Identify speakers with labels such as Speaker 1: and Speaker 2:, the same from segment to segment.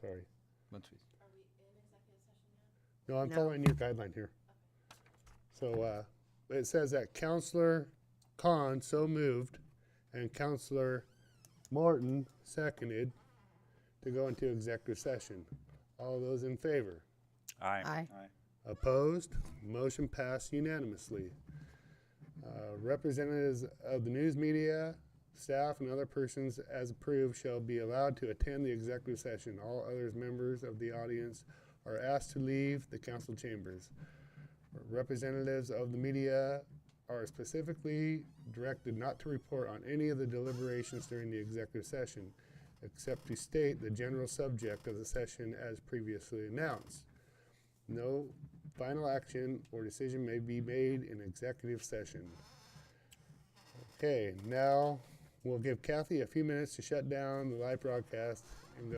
Speaker 1: sorry.
Speaker 2: Muncies.
Speaker 3: Are we in executive session yet?
Speaker 1: No, I'm
Speaker 4: No.
Speaker 1: following your guideline here. So, uh, it says that Counselor Khan so moved and Counselor Morton seconded to go into executive session. All those in favor?
Speaker 5: Aye.
Speaker 4: Aye.
Speaker 1: Opposed? Motion passed unanimously. Uh, Representatives of the news media, staff, and other persons as approved shall be allowed to attend the executive session. All others members of the audience are asked to leave the council chambers. Representatives of the media are specifically directed not to report on any of the deliberations during the executive session, except to state the general subject of the session as previously announced. No final action or decision may be made in executive session. Okay, now we'll give Kathy a few minutes to shut down the live broadcast. And go.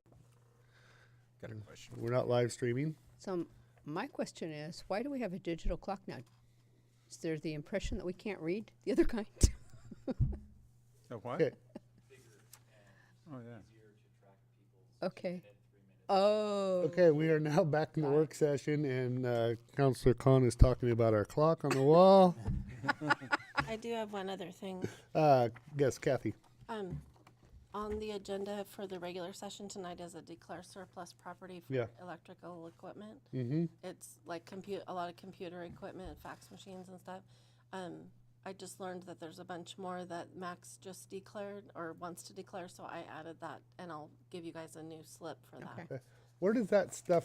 Speaker 2: Got a question.
Speaker 1: We're not live streaming.
Speaker 4: So m- my question is, why do we have a digital clock now? Is there the impression that we can't read the other kind?
Speaker 2: Oh, what?
Speaker 1: Okay.
Speaker 2: Oh, yeah.
Speaker 4: okay. Oh.
Speaker 1: Okay, we are now back in the work session, and uh, Counselor Khan is talking about our clock on the wall.
Speaker 3: I do have one other thing.
Speaker 1: Uh, yes, Kathy.
Speaker 3: Um, on the agenda for the regular session tonight is a declare surplus property for
Speaker 1: Yeah.
Speaker 3: electrical equipment.
Speaker 1: Mm-hmm.
Speaker 3: It's like compute, a lot of computer equipment, fax machines and stuff. Um, I just learned that there's a bunch more that Max just declared or wants to declare, so I added that and I'll give you guys a new slip for that.
Speaker 4: Okay.
Speaker 1: Where does that stuff?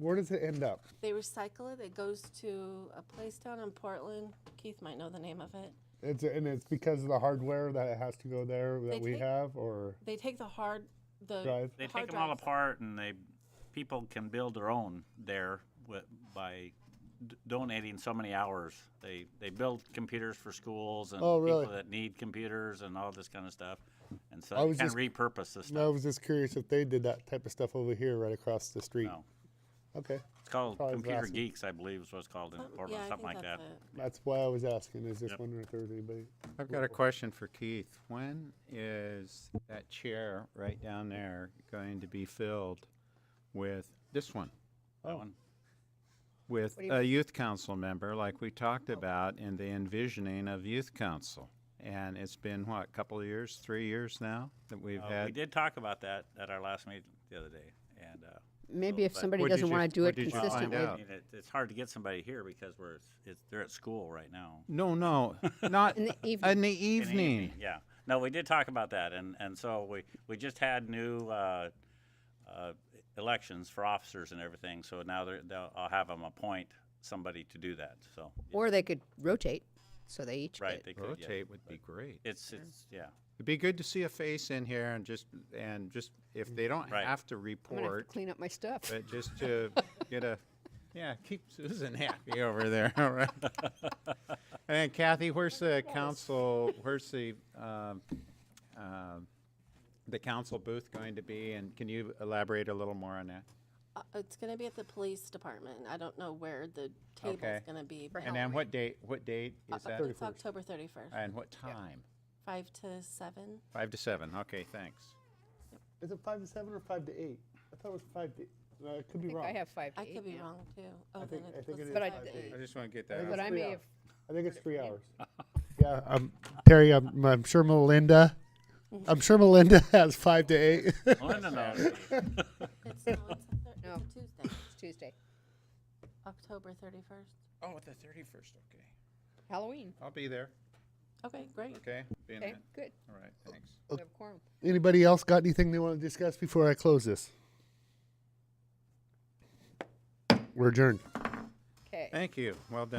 Speaker 1: Where does it end up?
Speaker 3: They recycle it. It goes to a place down in Portland. Keith might know the name of it.
Speaker 1: It's and it's because of the hardware that it has to go there that
Speaker 3: They
Speaker 1: we
Speaker 3: take-
Speaker 1: have, or
Speaker 3: They take the hard, the
Speaker 1: Drive.
Speaker 5: They
Speaker 3: hard
Speaker 5: take them all
Speaker 3: drives.
Speaker 5: apart and they, people can build their own there with, by d- donating so many hours. They, they build computers for schools and
Speaker 1: Oh, really?
Speaker 5: people that need computers and all this kind of stuff. And so
Speaker 1: I
Speaker 5: they
Speaker 1: was
Speaker 5: can
Speaker 1: just-
Speaker 5: repurpose this
Speaker 1: No, I
Speaker 5: stuff.
Speaker 1: was just curious if they did that type of stuff over here, right across the street.
Speaker 5: No.
Speaker 1: Okay,
Speaker 5: It's called
Speaker 1: Probably
Speaker 5: Computer
Speaker 1: last week.
Speaker 5: Geeks, I believe is what it's called in
Speaker 3: Some-
Speaker 5: Portland,
Speaker 3: Um, I
Speaker 5: something
Speaker 3: think
Speaker 5: like that.
Speaker 3: that's it.
Speaker 1: that's why I was asking. Is just
Speaker 5: Yep.
Speaker 1: wondering if there's anybody.
Speaker 2: I've got a question for Keith. When is that chair right down there going to be filled with this one?
Speaker 5: That one?
Speaker 2: With
Speaker 4: What do you-
Speaker 2: a youth council member, like we talked about in the envisioning of youth council? And it's been, what, a couple of years, three years now that we've
Speaker 5: Uh, We
Speaker 2: had?
Speaker 5: did talk about that at our last meeting the other day and, uh,
Speaker 4: Maybe if
Speaker 5: but
Speaker 4: somebody
Speaker 2: what
Speaker 4: doesn't
Speaker 2: did you-
Speaker 4: want to do
Speaker 2: what
Speaker 4: it
Speaker 2: did you find
Speaker 4: consistently.
Speaker 2: out?
Speaker 5: I mean, it, it's hard to get somebody here because we're, it's, they're at school right now.
Speaker 2: No, no, not
Speaker 4: In
Speaker 2: in
Speaker 4: the evening.
Speaker 2: the
Speaker 5: In the
Speaker 2: evening.
Speaker 5: Yeah. No, we did talk about that, and and so we we just had new. Uh, uh, elections for officers and everything, so now they're, they'll, I'll have them appoint somebody to do that. So, yeah,
Speaker 4: Or they could rotate, so they each
Speaker 5: right?
Speaker 4: get.
Speaker 5: They could, yeah.
Speaker 2: Rotate would be great.
Speaker 5: It's it's yeah.
Speaker 2: It'd be good to see a face in here and just, and just, if they don't
Speaker 5: Right.
Speaker 2: have to
Speaker 4: I'm gonna have to
Speaker 2: report,
Speaker 4: clean up my stuff.
Speaker 2: but just to get a, yeah, keep Susan happy over there, all right? And Kathy, where's the council, where's the, um, um, the council booth going to be? And can you elaborate a little more on that?
Speaker 3: Uh, it's gonna be at the police department. I don't know where the table's
Speaker 2: Okay.
Speaker 3: gonna be. but
Speaker 2: And then what date, what date is that?
Speaker 3: It's October thirty-first,
Speaker 2: And what time?
Speaker 3: five to seven.
Speaker 2: Five to seven, okay, thanks.
Speaker 1: Is it five to seven or five to eight? I thought it was five to. Uh, I could be
Speaker 4: I think
Speaker 1: wrong.
Speaker 4: I have five to
Speaker 3: I
Speaker 4: eight
Speaker 3: could be
Speaker 4: now.
Speaker 3: wrong too. Oh,
Speaker 1: think-
Speaker 3: then
Speaker 1: I think
Speaker 3: was
Speaker 1: it is
Speaker 3: the
Speaker 4: But I-
Speaker 3: five to eight.
Speaker 2: I just want to get
Speaker 1: I think
Speaker 2: that out.
Speaker 4: But
Speaker 1: it's
Speaker 4: I
Speaker 1: three
Speaker 4: may
Speaker 1: hours.
Speaker 4: have,
Speaker 1: I think it's three hours. yeah, um, Terry, I'm, I'm sure Melinda. I'm sure Melinda has five to eight.
Speaker 5: Melinda knows.
Speaker 3: It's, no, it's a thir-
Speaker 4: No.
Speaker 3: it's a Tuesday,
Speaker 4: it's Tuesday,
Speaker 3: October thirty-first.
Speaker 2: Oh, the thirty-first, okay.
Speaker 4: Halloween.
Speaker 2: I'll be there,
Speaker 3: Okay, great.
Speaker 2: okay? Be in
Speaker 4: Okay,
Speaker 2: it.
Speaker 4: good.
Speaker 2: All right, thanks.
Speaker 4: We have a quorum.
Speaker 1: Anybody else got anything they want to discuss before I close this? We're adjourned.
Speaker 4: Okay.
Speaker 2: Thank you, well done.